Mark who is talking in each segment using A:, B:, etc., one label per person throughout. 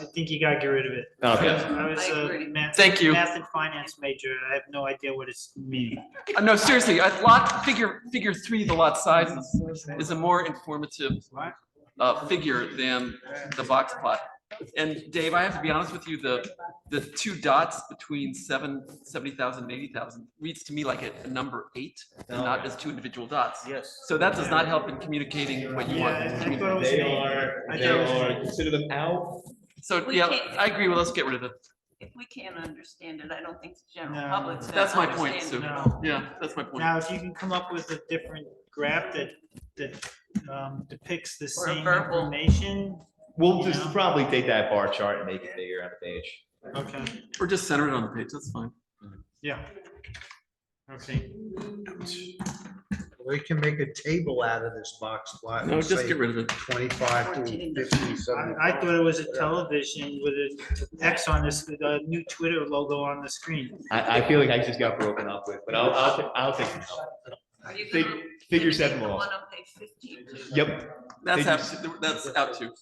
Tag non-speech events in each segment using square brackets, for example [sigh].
A: I think you gotta get rid of it.
B: Okay.
A: I was
C: I
A: a
C: agree.
A: math,
D: Thank you.
A: math and finance major, I have no idea what it's meaning.
D: Uh, No, seriously, a lot, figure, figure three, the lot size is- is a more informative uh, figure than the box plot. And Dave, I have to be honest with you, the, the two dots between seven, seventy thousand and eighty thousand reads to me like a a number eight and not as two individual dots.
B: Yes.
D: So that does not help in communicating what you
A: Yeah, I I
D: want.
A: thought it was
B: They
A: meaning.
B: are,
A: I
B: they
A: don't-
B: are, consider them out.
D: So, yeah, I agree, well, let's get rid of it.
C: If we can't understand it, I don't think the general
A: No.
C: public's. gonna
D: That's my point, Sue.
C: understand it.
A: No.
D: Yeah, that's my point.
A: Now, if you can come up with a different graph that, that um, depicts the
C: Or a
A: same
C: verbal.
A: information,
B: We'll just probably take that bar chart and make it bigger on the page.
A: okay,
D: Or just center it on the page, that's fine.
A: yeah. Okay,
E: We can make a table out of this box plot.
D: No,
E: and
D: just
E: say
D: get rid of it.
E: Twenty-five to
C: Fourteen.
E: fifty,
A: I,
E: seventy.
A: I thought it was a television with an X on this, a new Twitter logo on the screen.
B: I, I feel like I just got broken up with, but I'll, I'll, I'll take it out.
C: Are you
B: Fig-
C: gonna-
B: Figure
C: gonna take
B: seven
C: the
B: laws.
C: One on page fifteen too?
B: Yep,
D: That's,
B: They
D: out- that's out too.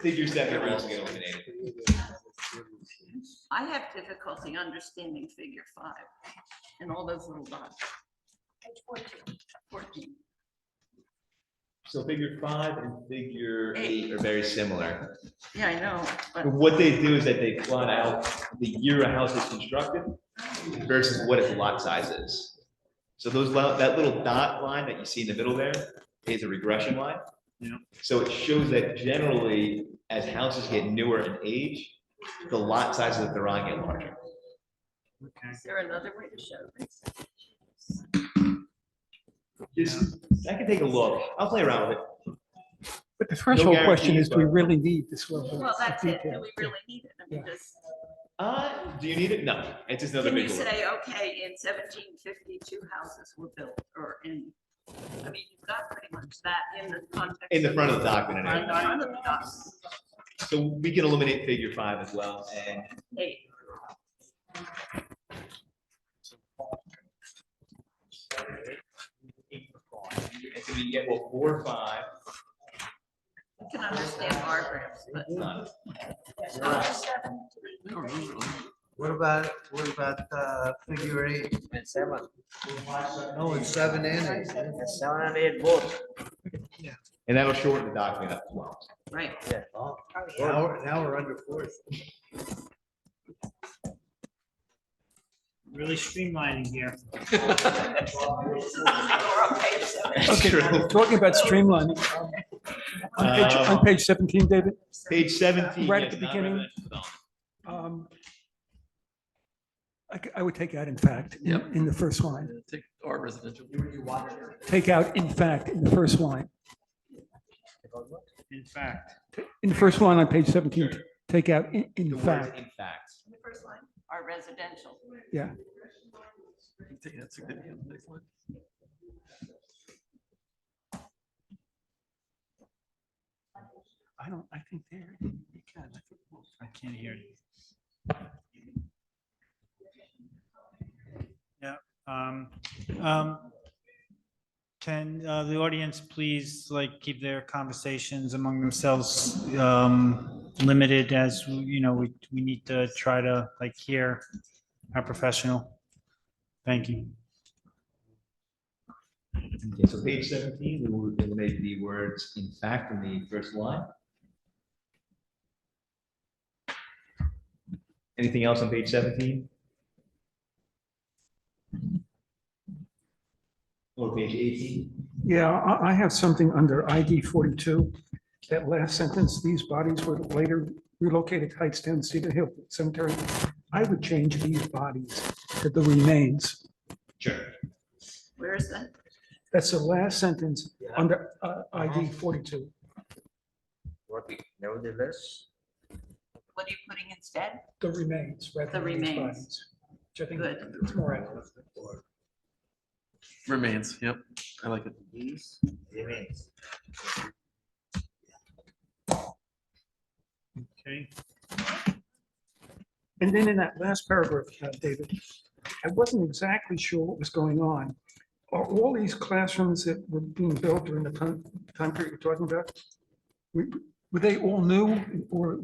B: figure seven laws get eliminated.
C: I have difficulty understanding figure five and all those little dots. Fourteen. Fourteen.
B: So figure five and figure eight are very similar.
C: Yeah, I know, but
B: What they do is that they plot out the year a house was constructed versus what its lot size is. So those, lo- that little dot line that you see in the middle there is a regression line.
A: Yeah.
B: So it shows that generally, as houses get newer in age, the lot sizes that they're on get larger.
A: Okay,
C: is there another way to show this?
B: Just, I can take a look. I'll play around with it.
F: But the threshold question
B: guarantees,
F: is, do we
B: but-
F: really need this level
C: Well,
F: of
C: that's it. Do
F: detail?
C: we really need it? I mean, does,
B: Uh, do you need it? No, it's just another
C: can you
B: big one.
C: say, okay, in seventeen fifty, two houses were built or in, I mean, you've got pretty much that in the context.
B: In the front of the document.
C: In
B: and everything.
C: front of the document.
B: So we can eliminate figure five as well, and
C: Eight.
B: it's gonna be, yeah, well, four, or five,
C: I can understand bar graphs, but
B: none.
D: No, remove it.
E: What about, what about, uh, figure eight?
G: Seven,
E: No, it's seven and eight.
G: seven and eight both.
B: And that'll shorten the document up as well.
C: right.
E: Oh, Now, we're- now we're under four.
A: really streamlining here.
B: That's true.
F: Talking about streamlining, on page, on
B: Um,
F: page seventeen, David,
B: Page seventeen.
F: Right at
B: yes,
F: the
B: not
F: beginning.
B: residential development.
F: um, I, c- I would take out in fact, in-
D: Yep.
F: in the first line.
D: [laughs] Take our residential.
F: Take out in fact in the first line.
A: In fact,
F: In the first line on page seventeen, take out in,
B: The
F: in
B: word
F: fact.
B: in fact.
C: The first line, are residential.
D: Take that significant next line.
F: I don't, I think there, you can, I think we'll-
A: I can't hear you. Yeah, um, um, can, uh, the audience please like keep their conversations among themselves, um, limited as, you know, we, we need to try to like hear our professional. Thank you.
B: Okay, so page seventeen, we will eliminate the words in fact in the first line. Anything else on page seventeen? Or page eighteen?
F: Yeah, I, I have something under ID forty-two, that last sentence, these bodies were later relocated to Hightstown Cedar Hill Cemetery. I would change these bodies to the remains.
B: Sure.
C: Where is that?
F: That's the last sentence under uh, ID forty-two.
G: What, nevertheless,
C: What are you putting instead?
F: The remains. rather
C: The
F: than these
C: remains.
F: bodies, Which I think
C: Good.
F: it's more accurate.
D: Remains, yep, I like it.
G: these remains.
A: Okay,
F: And then in that last paragraph, uh, David, I wasn't exactly sure what was going on. Are all these classrooms that were being built during the time, time period you're talking about? Were were they all new or